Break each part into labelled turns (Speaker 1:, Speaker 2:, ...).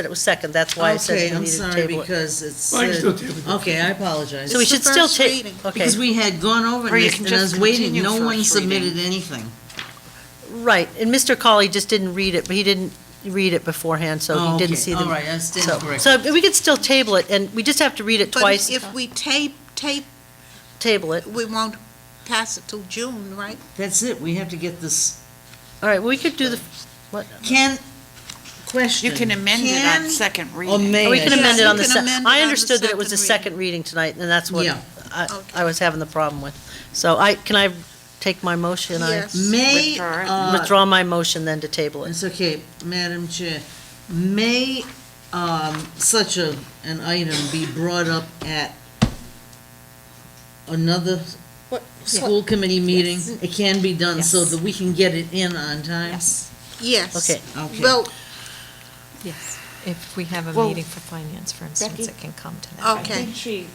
Speaker 1: But it was second, that's why I said
Speaker 2: Okay,
Speaker 1: we
Speaker 2: I'm
Speaker 1: needed to
Speaker 2: sorry,
Speaker 1: table it.
Speaker 2: because it's.
Speaker 3: Well, you can
Speaker 2: uh,
Speaker 3: still table it.
Speaker 2: Okay, I apologize.
Speaker 1: So we
Speaker 4: It's the
Speaker 1: should still
Speaker 4: first
Speaker 1: take,
Speaker 4: reading.
Speaker 1: okay,
Speaker 2: Because we had gone over
Speaker 4: Or you
Speaker 2: this,
Speaker 4: can
Speaker 2: and I
Speaker 4: just
Speaker 2: was waiting,
Speaker 4: continue
Speaker 2: no one
Speaker 4: first reading.
Speaker 2: submitted anything.
Speaker 1: right, and Mr. Colley just didn't read it, but he didn't read it beforehand, so
Speaker 2: Oh,
Speaker 1: he
Speaker 2: okay,
Speaker 1: didn't see
Speaker 2: All
Speaker 1: the.
Speaker 2: right, I stand
Speaker 1: So,
Speaker 2: corrected.
Speaker 1: so we could still table it, and we just have to read it
Speaker 4: But
Speaker 1: twice,
Speaker 4: If we tape, tape,
Speaker 1: table it.
Speaker 4: we won't pass it till June, right?
Speaker 2: That's it, we have to get this,
Speaker 1: All right, we could do the,
Speaker 2: can, question.
Speaker 5: You can amend it
Speaker 2: Can
Speaker 5: on second
Speaker 2: Or
Speaker 5: reading.
Speaker 2: may.
Speaker 1: we can
Speaker 4: Yes,
Speaker 1: amend it
Speaker 4: we
Speaker 1: on the,
Speaker 4: can
Speaker 1: se-
Speaker 4: amend it on
Speaker 1: I
Speaker 4: the
Speaker 1: understood that it was a
Speaker 4: second
Speaker 1: second reading tonight, and that's what
Speaker 2: Yeah.
Speaker 1: I,
Speaker 4: Okay.
Speaker 1: I was having the problem with. So I, can I take my motion? I
Speaker 4: Yes.
Speaker 2: May,
Speaker 5: Withdraw it.
Speaker 2: uh,
Speaker 1: Withdraw my motion then to table it.
Speaker 2: It's okay, Madam Chair. May um, such a, an item be brought up at another
Speaker 4: What-
Speaker 2: school committee meeting?
Speaker 4: Yes.
Speaker 2: It can be done so
Speaker 5: Yes.
Speaker 2: that we can get it in on time?
Speaker 4: Yes.
Speaker 1: Okay.
Speaker 2: Okay.
Speaker 4: Well,
Speaker 6: Yes, if we have a
Speaker 7: Well,
Speaker 6: meeting for finance, for instance,
Speaker 7: Becky?
Speaker 6: it can come to that.
Speaker 7: I
Speaker 4: Okay.
Speaker 7: think she,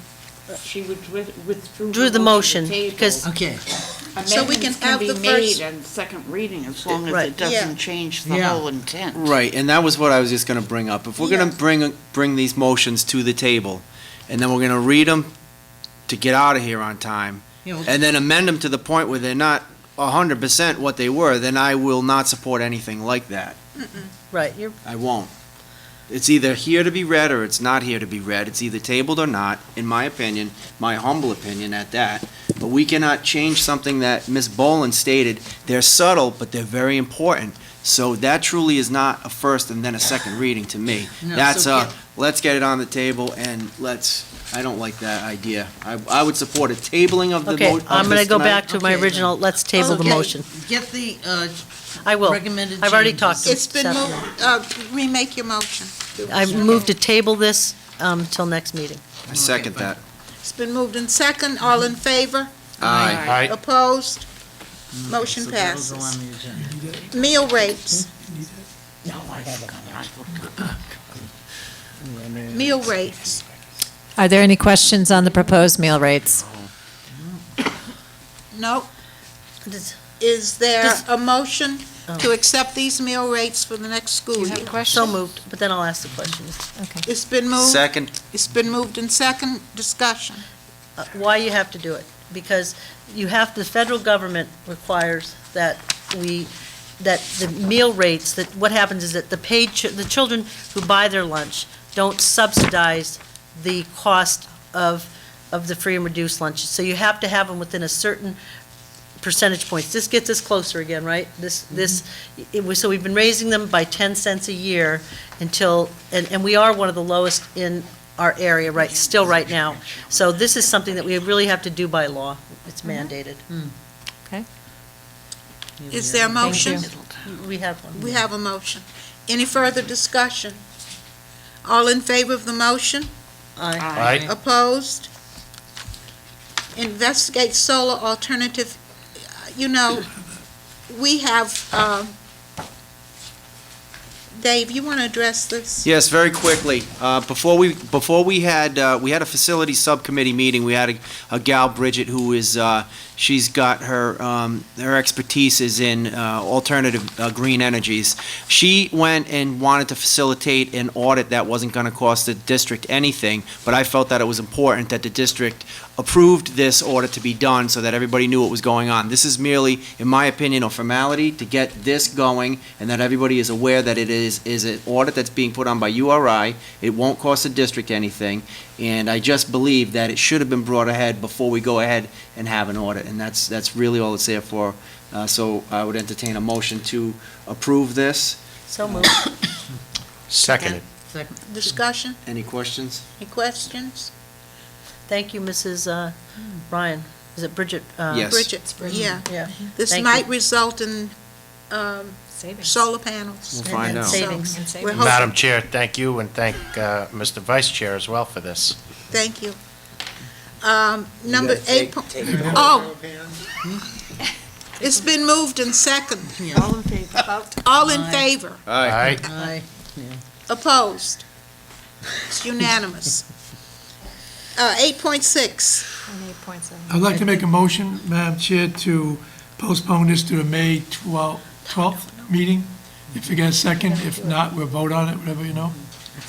Speaker 7: uh, she withdrew- withdrew.
Speaker 1: Drew the motion,
Speaker 7: table.
Speaker 1: because,
Speaker 2: Okay,
Speaker 4: So we can
Speaker 7: Amendments
Speaker 4: have the
Speaker 7: be
Speaker 4: first-
Speaker 7: made on second reading as long as
Speaker 1: Right.
Speaker 7: it
Speaker 4: Yeah.
Speaker 7: doesn't change the
Speaker 2: Yeah.
Speaker 7: whole intent.
Speaker 8: Right, and that was what I was just gonna bring up. If we're gonna
Speaker 4: Yes.
Speaker 8: bring, bring these motions to the table, and then we're gonna read them to get out of here on time,
Speaker 2: you know,
Speaker 8: and then amend them to the point where they're not a hundred percent what they were, then I will not support anything like that.
Speaker 1: right, you're,
Speaker 8: I won't. It's either here to be read or it's not here to be read. It's either tabled or not, in my opinion, my humble opinion at that. But we cannot change something that Ms. Boland stated. They're subtle, but they're very important. So that truly is not a first and then a second reading to me.
Speaker 2: No,
Speaker 8: That's
Speaker 2: so
Speaker 8: a, let's get it on the table and let's, I don't like that idea. I, I would support a tabling of the mo-
Speaker 1: okay,
Speaker 8: of
Speaker 1: I'm gonna
Speaker 8: this
Speaker 1: go
Speaker 8: tonight.
Speaker 1: back to my
Speaker 2: Okay, then.
Speaker 1: original, let's table the
Speaker 2: Okay.
Speaker 1: motion.
Speaker 2: get the uh,
Speaker 1: I will.
Speaker 2: recommended changes.
Speaker 1: I've already talked to
Speaker 4: it's been,
Speaker 1: Stephanie.
Speaker 4: moved. uh, remake your motion.
Speaker 1: I moved to table this, um, till next meeting.
Speaker 8: I second
Speaker 2: Okay,
Speaker 8: that.
Speaker 4: It's been moved in second, all in favor?
Speaker 8: Aye.
Speaker 5: Aye.
Speaker 4: Opposed? Motion
Speaker 2: So that'll go
Speaker 4: passes.
Speaker 2: on the agenda.
Speaker 4: Meal rates, meal rates.
Speaker 6: Are there any questions on the proposed meal rates?
Speaker 4: No,
Speaker 1: Does-
Speaker 4: is there
Speaker 1: Does-
Speaker 4: a motion to accept these meal rates for the next school year?
Speaker 1: So moved, but then I'll ask the questions.
Speaker 6: Okay.
Speaker 4: It's been moved,
Speaker 8: Second,
Speaker 4: it's been moved in second, discussion.
Speaker 1: Uh, Why you have to do it? Because you have, the federal government requires that we, that the meal rates, that what happens is that the paid, chi- the children who buy their lunch don't subsidize the cost of, of the free and reduced lunches. So you have to have them within a certain percentage points. This gets us closer again, right? This, this, it was, so we've been raising them by 10 cents a year until, and, and we are one of the lowest in our area right, still right now. So this is something that we really have to do by law. It's mandated.
Speaker 4: Is there a motion?
Speaker 1: We have one.
Speaker 4: We have a motion. Any further discussion? All in favor of the motion?
Speaker 1: Aye.
Speaker 3: Aye.
Speaker 4: Opposed? Investigate solar alternative, you know, we have, um, Dave, you want to address this?
Speaker 8: Yes, very quickly. Uh, Before we, before we had, uh, we had a facility subcommittee meeting, we had a- a gal, Bridget, who is, uh, she's got her, um, her expertise is in uh, alternative uh, green energies. She went and wanted to facilitate an audit that wasn't going to cost the district anything, but I felt that it was important that the district approved this audit to be done so that everybody knew what was going on. This is merely, in my opinion, a formality to get this going and that everybody is aware that it is, is an audit that's being put on by URI. It won't cost the district anything. And I just believe that it should have been brought ahead before we go ahead and have an audit. And that's, that's really all it's there for. Uh, so I would entertain a motion to approve this.
Speaker 1: So moved.
Speaker 3: Seconded.
Speaker 2: Second.
Speaker 4: Discussion,
Speaker 8: Any questions?
Speaker 4: any questions?
Speaker 1: Thank you, Mrs. uh, Ryan. Is it Bridget? uh,
Speaker 8: Yes.
Speaker 4: Bridget, yeah,
Speaker 1: Yeah.
Speaker 4: this
Speaker 1: Thank
Speaker 4: might
Speaker 1: you.
Speaker 4: result in um,
Speaker 6: Savings.
Speaker 4: solar panels.
Speaker 8: We'll find
Speaker 1: And
Speaker 8: out.
Speaker 1: Savings.
Speaker 6: And
Speaker 4: We're
Speaker 6: savings.
Speaker 4: hoping-
Speaker 3: Madam Chair, thank you, and thank uh, Mr. Vice Chair as well for this.
Speaker 4: Thank you. Um, Number
Speaker 8: gotta
Speaker 4: eight,
Speaker 8: take-
Speaker 4: po- oh. It's been moved and second.
Speaker 7: All in favor?
Speaker 4: All in
Speaker 2: Aye.
Speaker 4: favor?
Speaker 3: Aye.
Speaker 2: Aye.
Speaker 4: Opposed? It's unanimous. Uh, 8.6,
Speaker 6: And eight point seven.
Speaker 3: I'd like to make a motion, Madam Chair, to postpone this to the May 12th meeting. If you get a second, if not, we'll vote on it, whatever you know.